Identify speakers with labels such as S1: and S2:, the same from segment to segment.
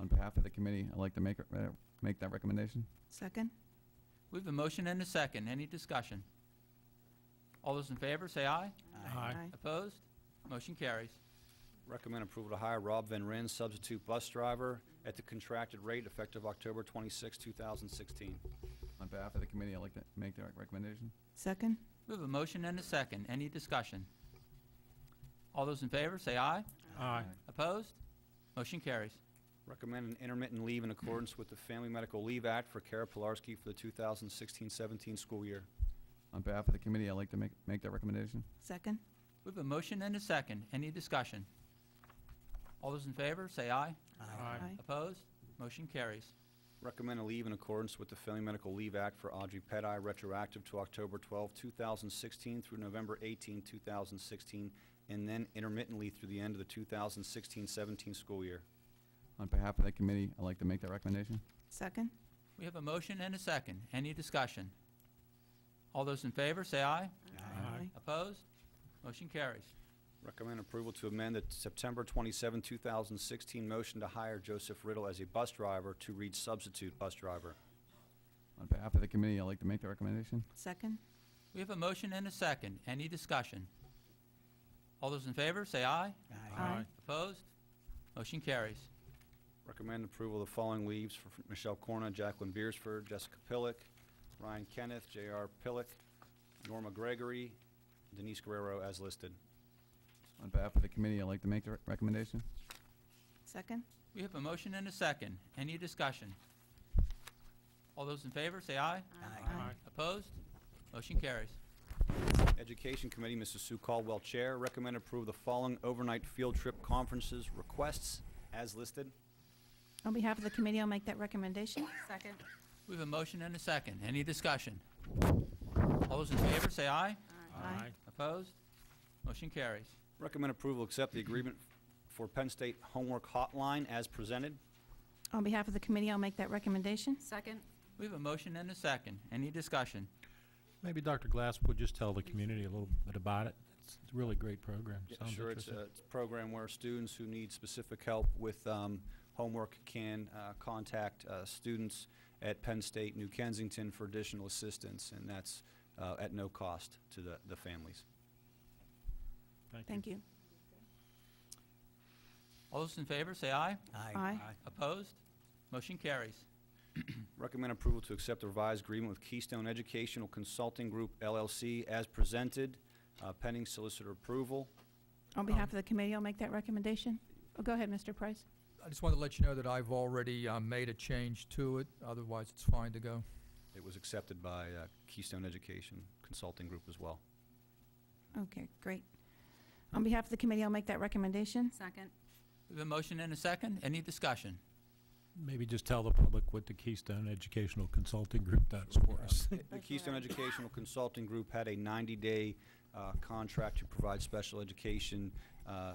S1: On behalf of the committee, I'd like to make, uh, make that recommendation.
S2: Second?
S3: We have a motion and a second. Any discussion? All those in favor, say aye.
S4: Aye.
S3: Opposed? Motion carries.
S5: Recommend approval to hire Rob Van Ryn, substitute bus driver, at the contracted rate effective October 26, 2016.
S1: On behalf of the committee, I'd like to make that recommendation.
S2: Second?
S3: We have a motion and a second. Any discussion? All those in favor, say aye.
S4: Aye.
S3: Opposed? Motion carries.
S5: Recommend an intermittent leave in accordance with the Family Medical Leave Act for Kara Pilarski for the 2016-17 school year.
S1: On behalf of the committee, I'd like to make, make that recommendation.
S2: Second?
S3: We have a motion and a second. Any discussion? All those in favor, say aye.
S4: Aye.
S3: Opposed? Motion carries.
S5: Recommend a leave in accordance with the Family Medical Leave Act for Audrey Pettit, retroactive to October 12, 2016 through November 18, 2016, and then intermittently through the end of the 2016-17 school year.
S1: On behalf of the committee, I'd like to make that recommendation.
S2: Second?
S3: We have a motion and a second. Any discussion? All those in favor, say aye.
S4: Aye.
S3: Opposed? Motion carries.
S5: Recommend approval to amend the September 27, 2016 motion to hire Joseph Riddle as a bus driver to read substitute bus driver.
S1: On behalf of the committee, I'd like to make that recommendation.
S2: Second?
S3: We have a motion and a second. Any discussion? All those in favor, say aye.
S2: Aye.
S3: Opposed? Motion carries.
S5: Recommend approval of the following leaves for Michelle Corna, Jacqueline Beersford, Jessica Pillock, Ryan Kenneth, J.R. Pillock, Norma Gregory, Denise Guerrero as listed.
S1: On behalf of the committee, I'd like to make the rec- recommendation.
S2: Second?
S3: We have a motion and a second. Any discussion? All those in favor, say aye.
S4: Aye.
S3: Opposed? Motion carries.
S5: Education Committee, Mrs. Sue Caldwell, Chair, recommend approval of the following overnight field trip conferences requests as listed.
S2: On behalf of the committee, I'll make that recommendation. Second?
S3: We have a motion and a second. Any discussion? All those in favor, say aye.
S2: Aye.
S3: Opposed? Motion carries.
S5: Recommend approval, accept the agreement for Penn State Homework Hotline as presented.
S2: On behalf of the committee, I'll make that recommendation.
S6: Second,
S3: We have a motion and a second. Any discussion?
S4: Maybe Dr. Glass would just tell the community a little bit about it. It's it's a really great program.
S5: Yeah,
S4: Sounds
S5: Sure, it's
S4: interesting.
S5: a it's a program where students who need specific help with um, homework can uh, contact uh, students at Penn State New Kensington for additional assistance, and that's uh, at no cost to the the families. uh,
S2: Thank you.
S3: All those in favor, say aye.
S2: Aye.
S3: Opposed? Motion carries.
S5: Recommend approval to accept the revised agreement with Keystone Educational Consulting Group LLC as presented, uh, pending solicitor approval.
S2: On behalf of the committee, I'll make that recommendation. Oh, Go ahead, Mr. Price.
S7: I just wanted to let you know that I've already uh, made a change to it, otherwise it's fine to go.
S5: It was accepted by uh, Keystone Education Consulting Group as well.
S2: Okay, great. On behalf of the committee, I'll make that recommendation.
S6: second,
S3: We have a motion and a second. Any discussion?
S4: Maybe just tell the public what the Keystone Educational Consulting Group does for us.
S5: The Keystone Educational Consulting Group had a 90-day uh, contract to provide special education uh,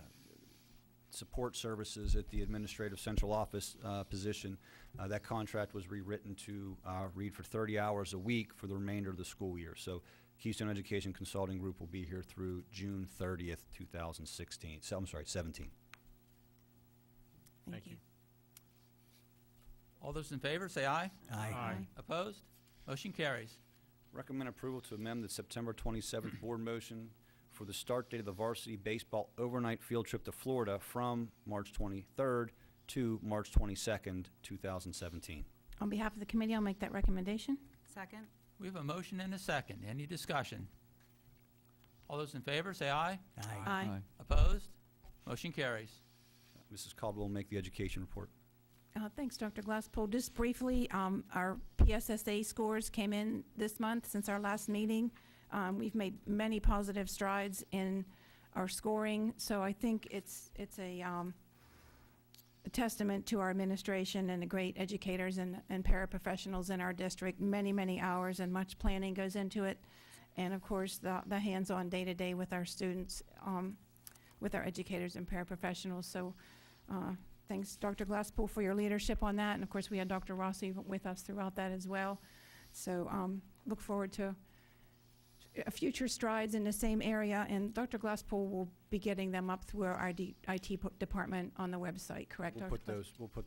S5: support services at the administrative central office uh, position. Uh, That contract was rewritten to uh, read for 30 hours a week for the remainder of the school year. So Keystone Education Consulting Group will be here through June 30th, 2016, so, I'm sorry, 17.
S2: Thank
S4: Thank
S2: you.
S3: All those in favor, say aye.
S2: Aye.
S3: Opposed? Motion carries.
S5: Recommend approval to amend the September 27th board motion for the start date of the varsity baseball overnight field trip to Florida from March 23rd to March 22nd, 2017.
S2: On behalf of the committee, I'll make that recommendation.
S6: second,
S3: We have a motion and a second. Any discussion? All those in favor, say aye.
S2: Aye.
S3: Opposed? Motion carries.
S5: Mrs. Caldwell will make the education report.
S2: Uh, Thanks, Dr. Glasspool. Just briefly, um, our PSSA scores came in this month since our last meeting. Um, We've made many positive strides in our scoring, so I think it's, it's a um, a testament to our administration and the great educators and, and paraprofessionals in our district. Many, many hours and much planning goes into it. And of course, the, the hands-on day-to-day with our students, um, with our educators and paraprofessionals. So uh, Thanks, Dr. Glasspool, for your leadership on that, and of course, we had Dr. Rossi with us throughout that as well. So um, look forward to uh, future strides in the same area, and Dr. Glasspool will be getting them up through our ID IT po- department on the website, correct?
S5: We'll
S2: Dr.
S5: put
S2: Glass-
S5: those, we'll put